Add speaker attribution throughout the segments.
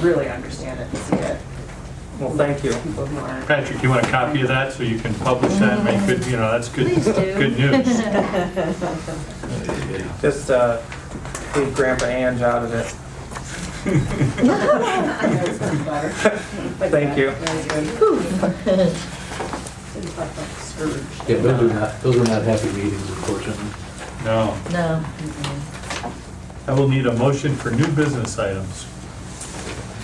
Speaker 1: really understand it and see it.
Speaker 2: Well, thank you.
Speaker 1: People who aren't.
Speaker 3: Patrick, you want a copy of that so you can publish that and make good, you know, that's good, good news.
Speaker 2: Just uh, leave Grandpa Ange out of it.
Speaker 1: I know it's not better. But yeah,
Speaker 2: Thank you.
Speaker 1: really good. It's like a Scrooge.
Speaker 4: Yeah, those are not, those are not happy meetings, unfortunately.
Speaker 3: No,
Speaker 5: No.
Speaker 3: I will need a motion for new business items.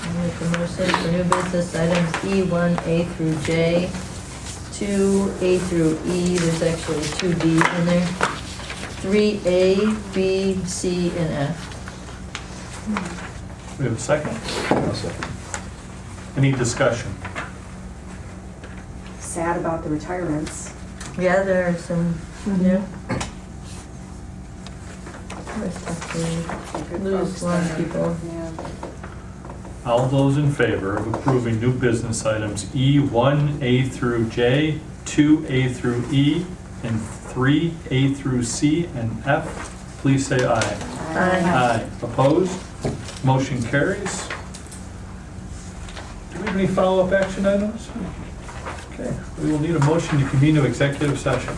Speaker 5: I Make a motion for new business items E1, A through J, 2, A through E, there's actually 2D in there, 3A, B, C, and F.
Speaker 3: We have a second?
Speaker 4: I'll second.
Speaker 3: Any discussion?
Speaker 1: Sad about the retirements.
Speaker 5: Yeah, there are some new. Where's that
Speaker 1: the good
Speaker 5: Lose
Speaker 1: folks
Speaker 5: one
Speaker 1: that are-
Speaker 5: people.
Speaker 1: Yeah.
Speaker 3: All those in favor of approving new business items E1, A through J, 2A through E, and 3A through C and F, please say aye. Aye. Uh, Opposed? Motion carries. Do we have any follow-up action items? Okay, we will need a motion to convene to executive session.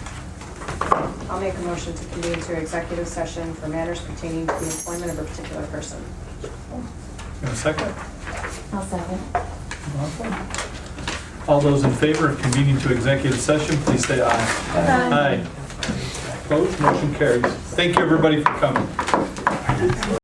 Speaker 1: I'll make a motion to convene to executive session for matters pertaining to the employment of a particular person.
Speaker 3: In a second?
Speaker 6: I'll second.
Speaker 3: All those in favor of convening to executive session, please say aye. Aye. Opposed? Motion carries. Thank you, everybody, for coming.